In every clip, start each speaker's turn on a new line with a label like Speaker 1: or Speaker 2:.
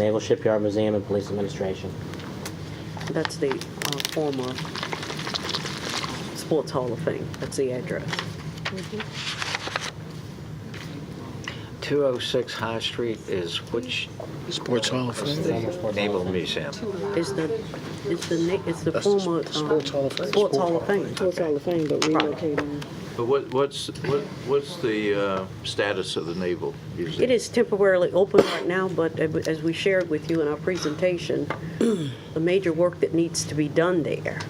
Speaker 1: Naval Shipyard Museum and Police Administration.
Speaker 2: That's the uh, former Sports Hall of Fame. That's the address.
Speaker 3: 206 High Street is which
Speaker 4: Sports Hall of Fame.
Speaker 3: the Naval Museum?
Speaker 2: It's the, it's the, na- it's the
Speaker 4: That's the
Speaker 2: former.
Speaker 4: Sp-
Speaker 2: um,
Speaker 4: Sports Hall of Fame.
Speaker 2: Sports Hall of Fame.
Speaker 5: It's all the thing, but relocating.
Speaker 6: But what, what's, what, what's the uh, status of the Naval Museum?
Speaker 2: It is temporarily open right now, but ab- as we shared with you in our presentation, the major work that needs to be done there.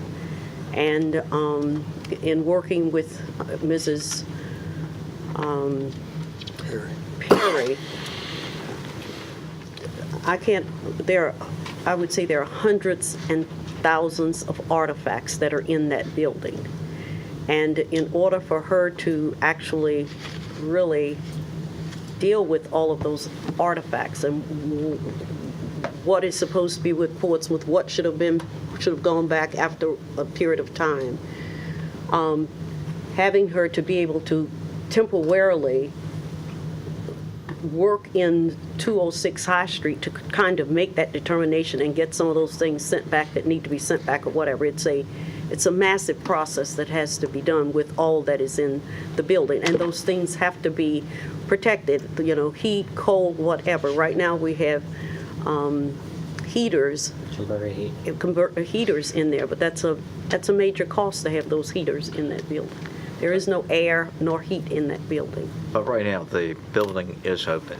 Speaker 2: And um, in working with uh, Mrs. um, Perry, I can't, there, I would say there are hundreds and thousands of artifacts that are in that building. And in order for her to actually really deal with all of those artifacts and w- what is supposed to be with Portsmouth, what should have been, should have gone back after a period of time. Um, Having her to be able to temporarily work in 206 High Street to kind of make that determination and get some of those things sent back that need to be sent back or whatever. It's a, it's a massive process that has to be done with all that is in the building. And those things have to be protected, you know, heat, cold, whatever. Right now, we have um, heaters,
Speaker 1: Temporary heat.
Speaker 2: convert, heaters in there, but that's a, that's a major cost to have those heaters in that building. There is no air nor heat in that building.
Speaker 3: But right now, the building is open.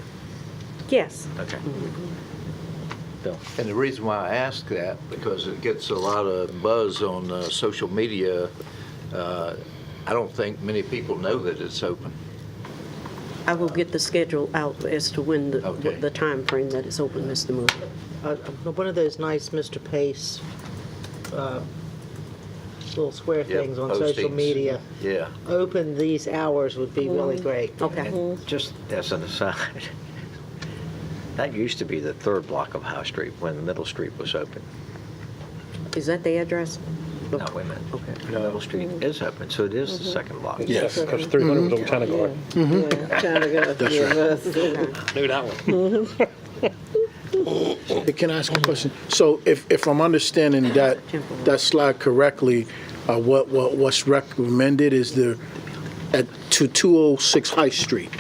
Speaker 2: Yes.
Speaker 3: Okay. Bill?
Speaker 6: And the reason why I ask that, because it gets a lot of buzz on uh, social media, uh, I don't think many people know that it's open.
Speaker 2: I will get the schedule out as to when the,
Speaker 6: Okay.
Speaker 2: what the timeframe that it's open, Mr. Moore.
Speaker 5: Uh, One of those nice Mr. Pace, uh, little square
Speaker 6: Yeah,
Speaker 5: things on social
Speaker 6: postings.
Speaker 5: media.
Speaker 6: Yeah.
Speaker 5: Open these hours would be really great. Mm-hmm.
Speaker 2: Okay.
Speaker 3: And just as an aside, that used to be the third block of High Street when Middle Street was open.
Speaker 2: Is that the address?
Speaker 3: No, wait a minute. Okay. Middle Street is open, so it is the
Speaker 4: Mm-hmm.
Speaker 3: second block.
Speaker 7: Yes, because 300 was on China Guard.
Speaker 5: Trying to go. yeah, that's-
Speaker 7: Knew that one.
Speaker 4: Hey, Can I ask a question? So if, if I'm understanding that, that slide correctly, uh, what, what, what's recommended is the, at, to 206 High Street,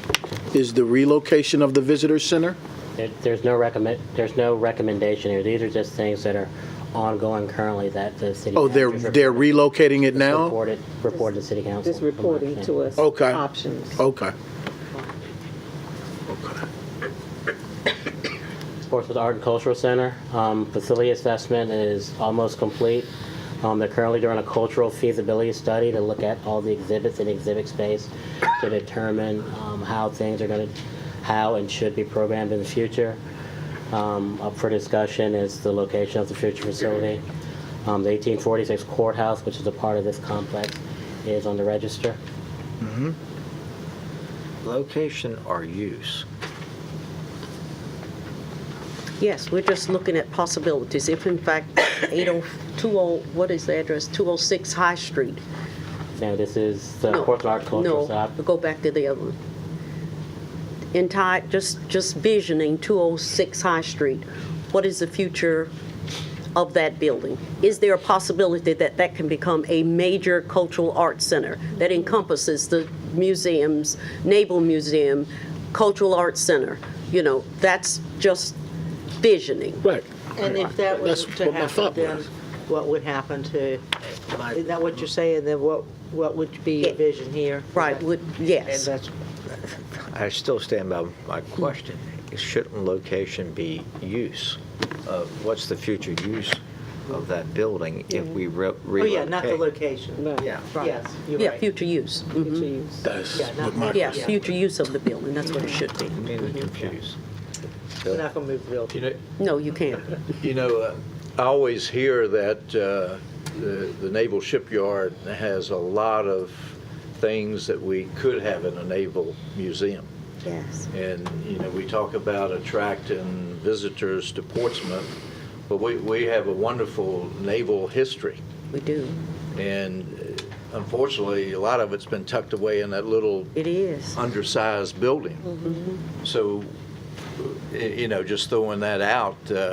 Speaker 4: is the relocation of the visitor center?
Speaker 1: There- There's no recommend, there's no recommendation here. These are just things that are ongoing currently that the city.
Speaker 4: Oh, they're,
Speaker 1: manager's
Speaker 4: they're relocating it now?
Speaker 1: Reported, reported to city council.
Speaker 5: Just reporting to us
Speaker 4: Okay.
Speaker 5: options.
Speaker 4: Okay. Okay.
Speaker 1: Portsmouth Art and Cultural Center. Um, Facility assessment is almost complete. Um, They're currently doing a cultural feasibility study to look at all the exhibits in exhibit space to determine um, how things are going to, how and should be programmed in the future. Um, Up for discussion is the location of the future facility. Um, The 1846 courthouse, which is a part of this complex, is on the register.
Speaker 3: Location or use?
Speaker 2: Yes, we're just looking at possibilities. If in fact, 802, oh, what is the address? 206 High Street.
Speaker 1: Now, this is the
Speaker 2: No,
Speaker 1: Portsmouth Art and Cultural
Speaker 2: No,
Speaker 1: Center.
Speaker 2: go back to the other one. Entire, just, just visioning 206 High Street. What is the future of that building? Is there a possibility that that can become a major cultural arts center that encompasses the museums, Naval Museum, Cultural Arts Center? You know, that's just visioning.
Speaker 4: Right.
Speaker 5: And if that was
Speaker 4: That's
Speaker 5: to
Speaker 4: what my
Speaker 5: happen,
Speaker 4: thought
Speaker 5: then
Speaker 4: was.
Speaker 5: what would happen to, is that what you're saying, then what, what would be your vision here?
Speaker 2: Right, would,
Speaker 5: And
Speaker 2: yes.
Speaker 5: that's,
Speaker 3: I still stand by my question. Shouldn't location be use? Uh, What's the future use of that building if we re-
Speaker 5: oh
Speaker 3: relocate?
Speaker 5: yeah, not the location.
Speaker 3: Yeah.
Speaker 5: Yes, you're
Speaker 2: Yeah,
Speaker 5: right.
Speaker 2: future use. Mhm.
Speaker 4: That's
Speaker 5: Yeah, not-
Speaker 4: what my
Speaker 2: Yeah, future use of the building, that's what it should be.
Speaker 3: I'm
Speaker 5: Mhm.
Speaker 3: either confused.
Speaker 5: We're not going to move the building.
Speaker 6: You know,
Speaker 2: No, you can't.
Speaker 6: You know, uh, I always hear that uh, the the Naval Shipyard has a lot of things that we could have in a naval museum.
Speaker 2: Yes.
Speaker 6: And, you know, we talk about attracting visitors to Portsmouth, but we we have a wonderful naval history.
Speaker 2: We do.
Speaker 6: And uh, unfortunately, a lot of it's been tucked away in that little
Speaker 2: It is.
Speaker 6: undersized building. So y- you know, just throwing that out, uh,